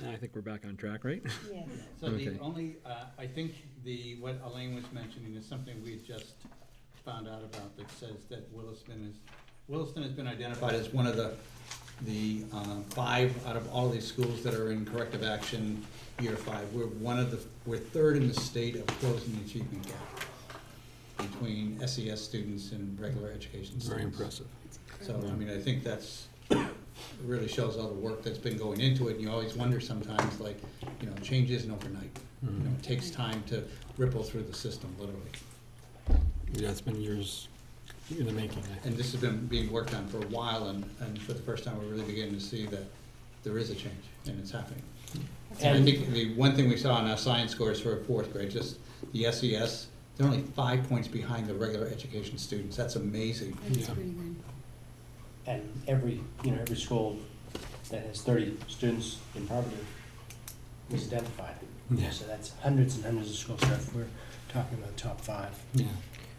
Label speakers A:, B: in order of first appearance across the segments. A: And I think we're back on track, right?
B: Yes.
C: So the
A: Okay.
C: only, uh, I think the, what Elaine was mentioning is something we had just found out about that says that Williston is, Williston has been identified as one of the, the uh, five out of all these schools that are in corrective action year five. We're one of the, we're third in the state of closing the achievement gap between SES students and regular education students.
A: Very impressive.
C: So, I mean, I think that's, really shows all the work that's been going into it, and you always wonder sometimes, like, you know, change isn't overnight. You know, it takes time to ripple through the system, literally.
A: Yeah, it's been years in the making, I
C: And
A: think.
C: this has been being worked on for a while, and, and for the first time, we're really beginning to see that there is a change, and it's happening. And I think the one thing we saw in our science scores for fourth grade, just the SES, they're only five points behind the regular education students, that's amazing.
A: Yeah.
D: And every, you know, every school that has thirty students in poverty was identified.
A: Yeah.
D: So that's hundreds and hundreds of schools, so if we're talking about top five.
A: Yeah,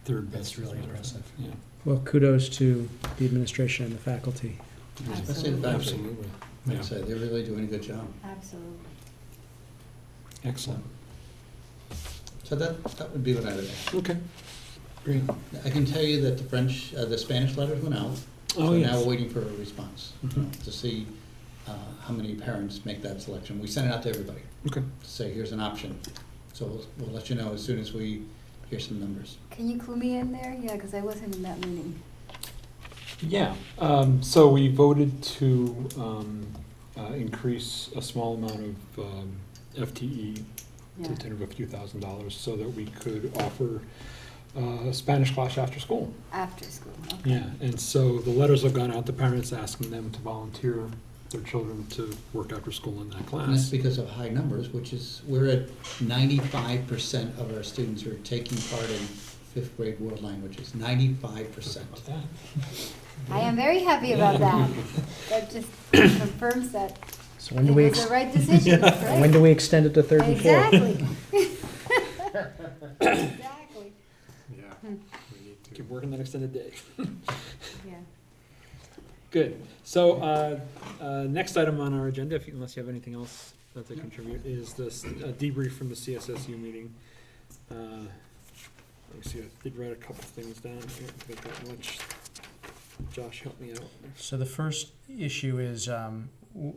A: third best.
D: That's
A: as a
D: really
A: matter of
D: impressive.
A: fact. Yeah,
E: Well, kudos to the administration and the faculty.
C: That's it, that's it.
A: absolutely. Yeah,
C: That's it, they're really doing a good job.
B: Absolutely.
A: excellent.
C: So that, that would be what I would add.
A: Okay, great.
C: I can tell you that the French, uh, the Spanish letters went out.
A: Oh,
C: So now
A: yes.
C: we're waiting for a response you know, to see uh, how many parents make that selection. We sent it out to everybody
A: Okay,
C: to say, here's an option. So we'll, we'll let you know as soon as we hear some numbers.
B: Can you clue me in there? Yeah, because I wasn't in that meeting.
A: yeah. Um, so we voted to, um, uh, increase a small amount of, um, FTE to
B: Yeah.
A: the tune of a few thousand dollars so that we could offer, uh, Spanish class after school.
B: After school, okay.
A: Yeah, and so the letters have gone out to parents asking them to volunteer their children to work after school in that
C: And that's
A: class.
C: because of high numbers, which is, we're at ninety-five percent of our students are taking part in fifth grade world languages, ninety-five percent.
A: About that.
B: I am very happy about that. That just confirms that
E: So when
B: it
E: do we,
B: was
E: ex-
B: the right decision, right?
E: when do we extend it to third and fourth?
B: Exactly. Exactly,
A: Yeah.
D: Hmm.
A: Keep working that extended day.
B: yeah.
A: Good. So, uh, uh, next item on our agenda, if you- unless you have anything else that to contribute, is this uh, debrief from the CSSU meeting. Uh, Let me see, I did write a couple things down here, but that much. Josh, help me out.
D: So the first issue is, um, w-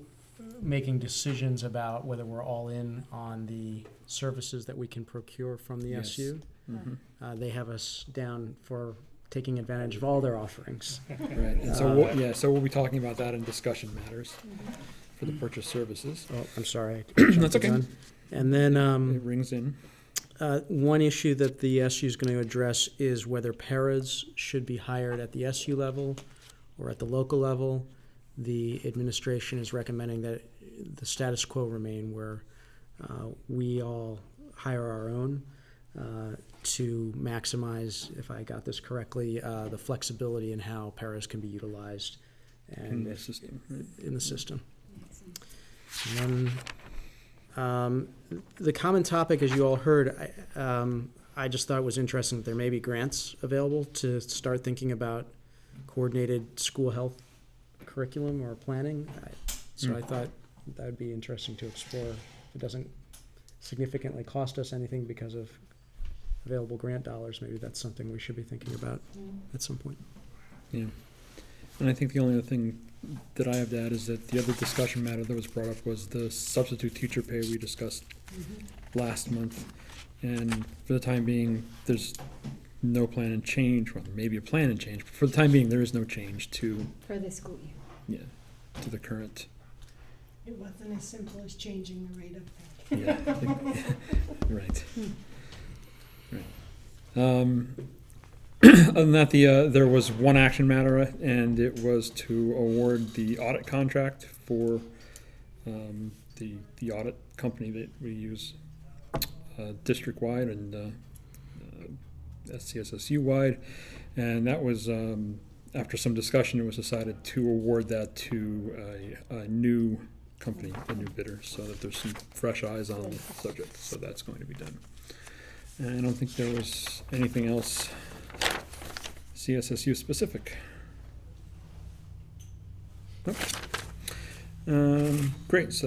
D: making decisions about whether we're all in on the services that we can procure from the
A: Yes.
D: SU.
A: Mhm.
D: Uh, they have us down for taking advantage of all their offerings.
A: Right, and so,
D: Uh,
A: we'll- yeah, so we'll be talking about that in discussion matters for the purchase services.
D: Oh, I'm sorry.
A: Mm-hmm. That's okay.
D: Done. And then, um.
A: It rings in.
D: Uh, One issue that the SU is going to address is whether paras should be hired at the SU level or at the local level. The administration is recommending that the status quo remain where uh, we all hire our own uh, to maximize, if I got this correctly, uh, the flexibility in how paras can be utilized and if
A: system.
D: in the system. And then, um, the common topic, as you all heard, I, um, I just thought was interesting that there may be grants available to start thinking about coordinated school health curriculum or planning. I- So I thought that would be interesting to explore. If it doesn't significantly cost us anything because of available grant dollars, maybe that's something we should be thinking about at some point.
A: Yeah. And I think the only other thing that I have to add is that the other discussion matter that was brought up was the substitute teacher pay we discussed last month. And for the time being, there's no plan and change, well, maybe a plan and change, but for the time being, there is no change to,
B: For the school year.
A: yeah, to the current.
F: It wasn't as simple as changing the rate of pay.
A: Yeah, I think- right. Right. Um, Other than that, the, uh, there was one action matter, and it was to award the audit contract for um, the, the audit company that we use uh, district-wide and uh, uh, SCSSU-wide. And that was, um, after some discussion, it was decided to award that to a, a new company, a new bidder, so that there's some fresh eyes on the subject, so that's going to be done. And I don't think there was anything else CSSU specific. Nope. Um, great, so that